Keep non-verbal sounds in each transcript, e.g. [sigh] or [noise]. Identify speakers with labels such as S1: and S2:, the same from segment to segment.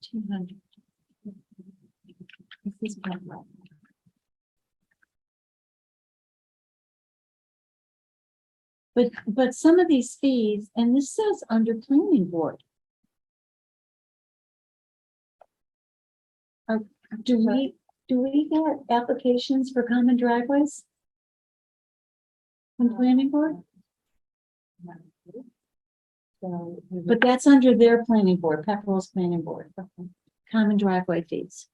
S1: Two hundred. This is not right. But, but some of these fees, and this says under planning board. Are- do we, do we get applications for common driveways? From planning board? But that's under their planning board, Pepperell's planning board, common driveway fees.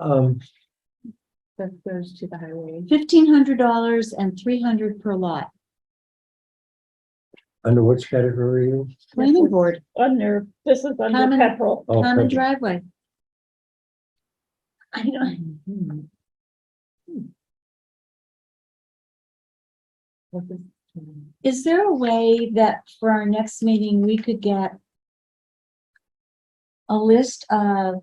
S2: Um,
S1: That goes to the highway. Fifteen hundred dollars and three hundred per lot,
S2: under which category? are you?
S1: planning board,
S3: Under, this is under
S1: Common-
S3: [laughs] petrol.
S2: Oh,
S1: common
S2: perfect.
S1: driveway. I don't, Mm-hmm. is there a way that for our next meeting, we could get a list of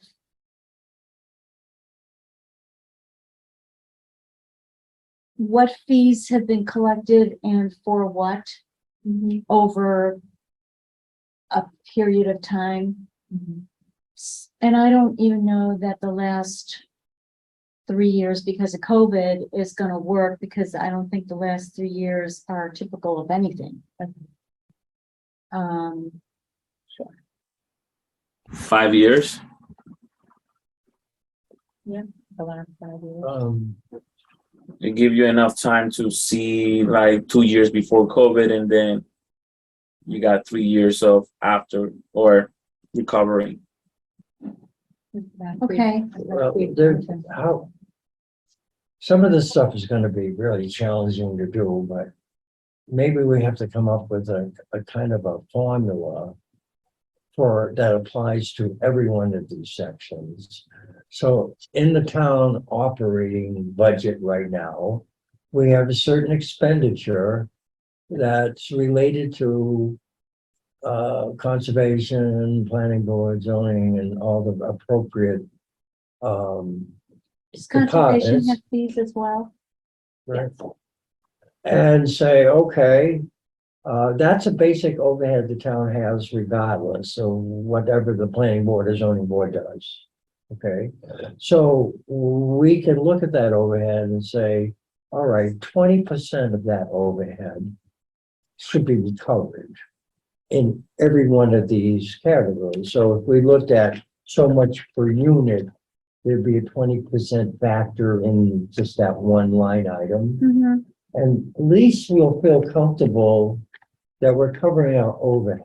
S1: what fees have been collected and for what Mm-hmm. over a period of time?
S3: Mm-hmm.
S1: S- And I don't even know that the last three years because of COVID is gonna work because I don't think the last three years are typical of anything. Um,
S4: Five years?
S2: Um,
S4: It give you enough time to see like two years before COVID and then you got three years of after or recovering.
S1: okay,
S2: well, there, uh, how? Some of this stuff is gonna be really challenging to do, but maybe we have to come up with a, a kind of a formula for, that applies to every one of these sections. So in the town operating budget right now, we have a certain expenditure that's related to uh, conservation, planning board, zoning, and all the appropriate um,
S1: does
S2: The pot
S1: conservation
S2: is-
S1: have fees as well?
S2: and say, okay, uh, that's a basic overhead the town has regardless of whatever the planning board or zoning board does. Okay, so we can look at that overhead and say, all right, twenty percent of that overhead should be recovered in every one of these categories. So if we looked at so much per unit, there'd be a twenty percent factor in just that one line item.
S1: Mhm.
S2: And at least we'll feel comfortable that we're covering our overhead.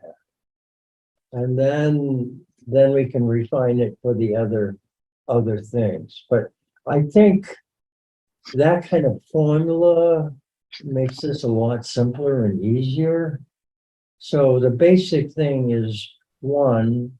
S2: And then, then we can refine it for the other, other things. But I think that kind of formula makes this a lot simpler and easier. So the basic thing is, one,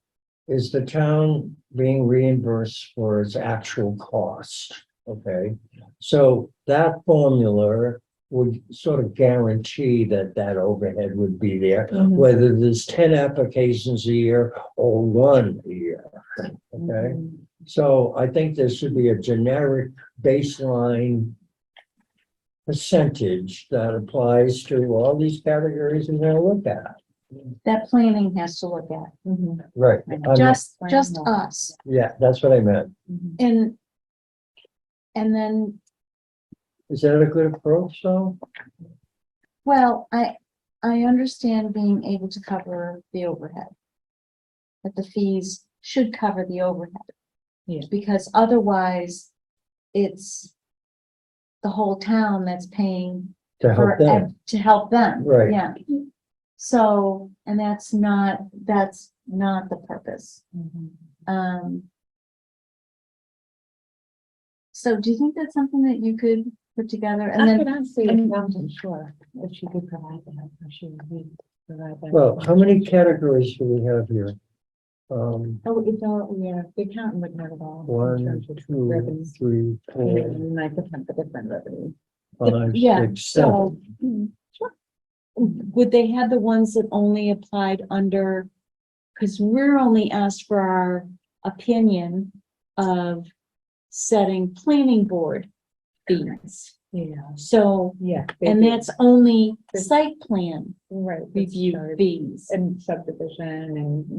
S2: is the town being reimbursed for its actual cost, okay? So that formula would sort of guarantee that that overhead would be there, whether there's ten applications a year or one a year, okay? So I think there should be a generic baseline percentage that applies to all these categories we're gonna look at.
S1: That planning has to look at,
S3: Mm-hmm.
S2: Right. I'm-
S1: just, just
S3: Planning.
S1: us,
S2: Yeah, that's what I meant.
S1: and and then
S2: Is that a good approach, though?
S1: Well, I, I understand being able to cover the overhead. That the fees should cover the overhead.
S3: Yeah.
S1: Because otherwise, it's the whole town that's paying
S2: To help
S1: for,
S2: them?
S1: ev- to help them.
S2: Right.
S1: Yeah. So, and that's not, that's not the purpose. Um. So do you think that's something that you could put together and
S3: I
S1: then?
S3: could ask the
S1: and-
S3: accountant, sure, if she could provide that, if she would provide that.
S2: Well, how many categories do we have here? Um,
S3: Oh, it's all, yeah, the accountant would know it all. in
S2: one,
S3: terms of
S2: two,
S3: revenue.
S2: three,
S3: And
S2: four,
S3: then I could have the different revenue.
S2: five,
S1: Yeah,
S2: six,
S1: So, hmm,
S2: seven.
S1: would they have the ones that only applied under, because we're only asked for our opinion of setting planning board fees.
S3: Yeah,
S1: So,
S3: yeah. they
S1: and
S3: do.
S1: that's only site plan
S3: Right. that's
S1: review
S3: charged.
S1: fees.
S3: And subdivision and